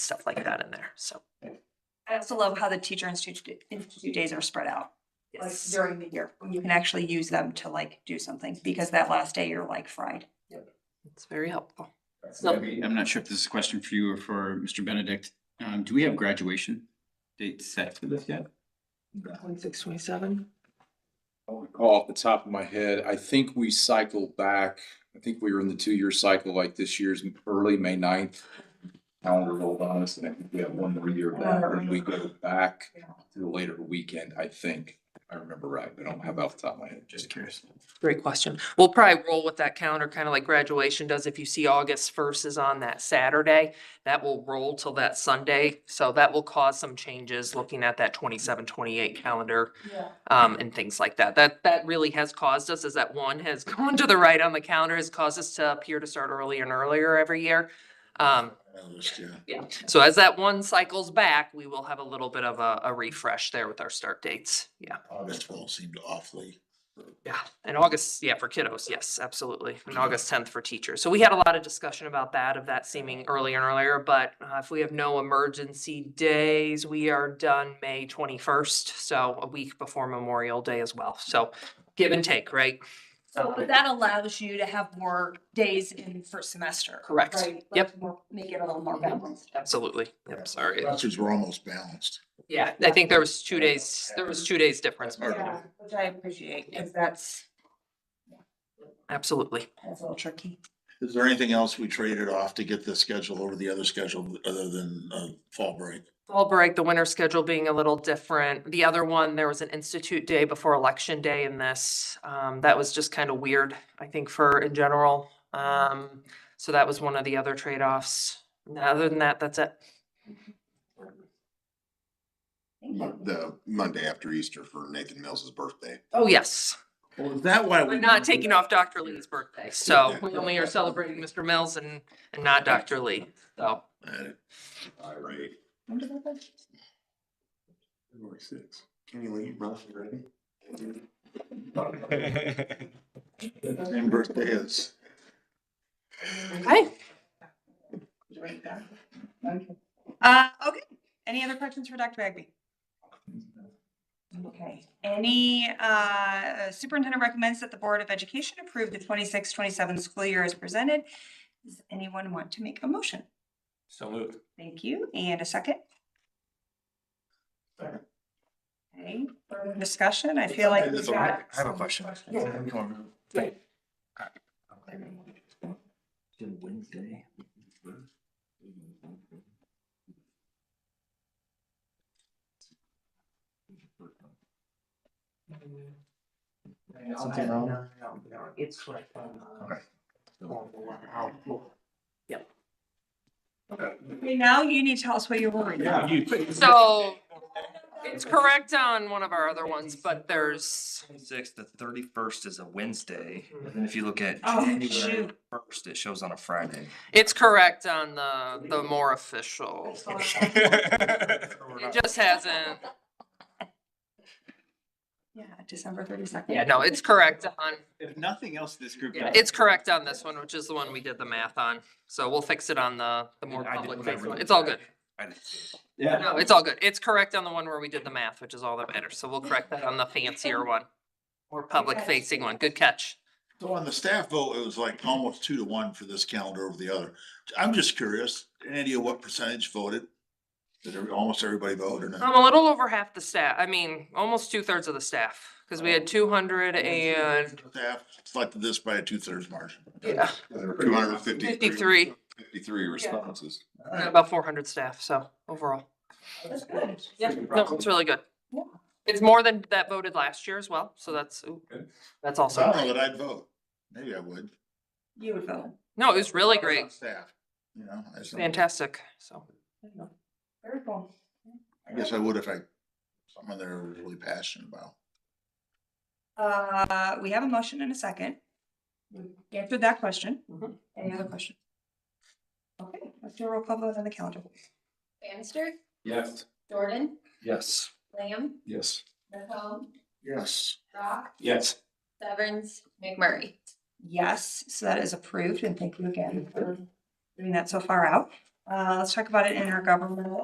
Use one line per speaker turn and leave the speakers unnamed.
stuff like that in there, so.
I also love how the teacher institute, institute days are spread out. Like during the year, when you can actually use them to like do something, because that last day you're like fried.
It's very helpful.
So I'm not sure if this is a question for you or for Mr. Benedict. Um, do we have graduation dates set for this yet?
Twenty-six, twenty-seven?
I don't recall off the top of my head, I think we cycled back, I think we were in the two-year cycle, like this year's early May 9th. Calendar rolled on us, and I think we have one more year of that, and we go back to the later weekend, I think. I remember right, but I don't have off the top of my head, just curious.
Great question.
We'll probably roll with that calendar, kind of like graduation does. If you see August first is on that Saturday, that will roll till that Sunday. So that will cause some changes looking at that 27, 28 calendar
Yeah.
um, and things like that. That, that really has caused us is that one has gone to the right on the calendar has caused us to appear to start earlier and earlier every year. Um, yeah, so as that one cycles back, we will have a little bit of a, a refresh there with our start dates. Yeah.
August one seemed awfully.
Yeah, and August, yeah, for kiddos, yes, absolutely. And August tenth for teachers. So we had a lot of discussion about that, of that seeming earlier and earlier, but uh, if we have no emergency days, we are done May twenty-first, so a week before Memorial Day as well. So give and take, right?
So, but that allows you to have more days in first semester.
Correct.
right? Like
Yep.
more- Make it a little more balanced.
Absolutely. I'm sorry.
Buses were almost balanced.
Yeah, I think there was two days, there was two days difference.
Or-
Yeah, Which I appreciate, because that's,
Absolutely.
that's a little tricky.
Is there anything else we traded off to get this schedule over the other schedule other than uh fall break?
Fall break, the winter schedule being a little different. The other one, there was an institute day before election day in this. Um, that was just kind of weird, I think, for in general. Um, so that was one of the other trade-offs. And Other than that, that's it.
the Monday after Easter for Nathan Mills's birthday.
Oh, yes.
Well, is that why?
We're not taking off Dr. Lee's birthday, so we only are celebrating Mr. Mills and, and not Dr. Lee. So,
All right. February sixth. Kenny Lee, Ralph, you ready?
Same birthday as.
okay.
Uh, okay, any other questions for Dr. Bagby? Okay, any, uh, superintendent recommends that the Board of Education approve the 26-27 school year as presented. Does anyone want to make a motion?
So moved.
Thank you, and a second? Okay, further discussion, I feel like. we've got some questions.
Wednesday.
Something wrong?
Okay, Now you need to tell us what you're worried about.
So it's correct on one of our other ones, but there's,
Twenty-sixth, the thirty-first is a Wednesday, and then if you look at
Oh,
January
shoot.
first, it shows on a Friday.
it's correct on the, the more official. It just hasn't.
Yeah, December thirty-second.
Yeah, no, it's correct on,
If nothing else, this group.
yeah, it's correct on this one, which is the one we did the math on. So we'll fix it on the, the more
I didn't
public
remember
facing one.
that.
It's all good.
I didn't see it.
Yeah.
No, it's all good. It's correct on the one where we did the math, which is all that matters. So we'll correct that on the fancier one. More public facing one. Good catch.
So on the staff vote, it was like almost two to one for this calendar over the other. I'm just curious, any idea what percentage voted? Did every- almost everybody vote or not?
I'm a little over half the staff. I mean, almost two thirds of the staff, because we had two hundred and
Staff selected this by a two-thirds margin.
yeah,
There were two hundred and fifty-three.
fifty-three,
Fifty-three responses.
about four hundred staff. So overall. Yeah, no, it's really good.
Yeah.
It's more than that voted last year as well, so that's, ooh, that's
So I don't know
also,
that I'd vote. Maybe I would.
You would vote.
no, Oh, it was really
I was on
great,
Staff, you know, I just don't-
fantastic, so.
Very cool.
I guess I would if I, someone there was really passionate about.
Uh, we have a motion and a second. We Answered that question.
Mhm.
Any other question? Okay, let's do a roll call vote on the calendar.
Bannister,
Yes.
Jordan,
Yes.
Lamb,
Yes.
Mahone,
Yes.
Rock,
Yes.
Severns, McMurray.
Yes, so that is approved and thank you again for doing that so far out. Uh, Uh, let's talk about it in our governmental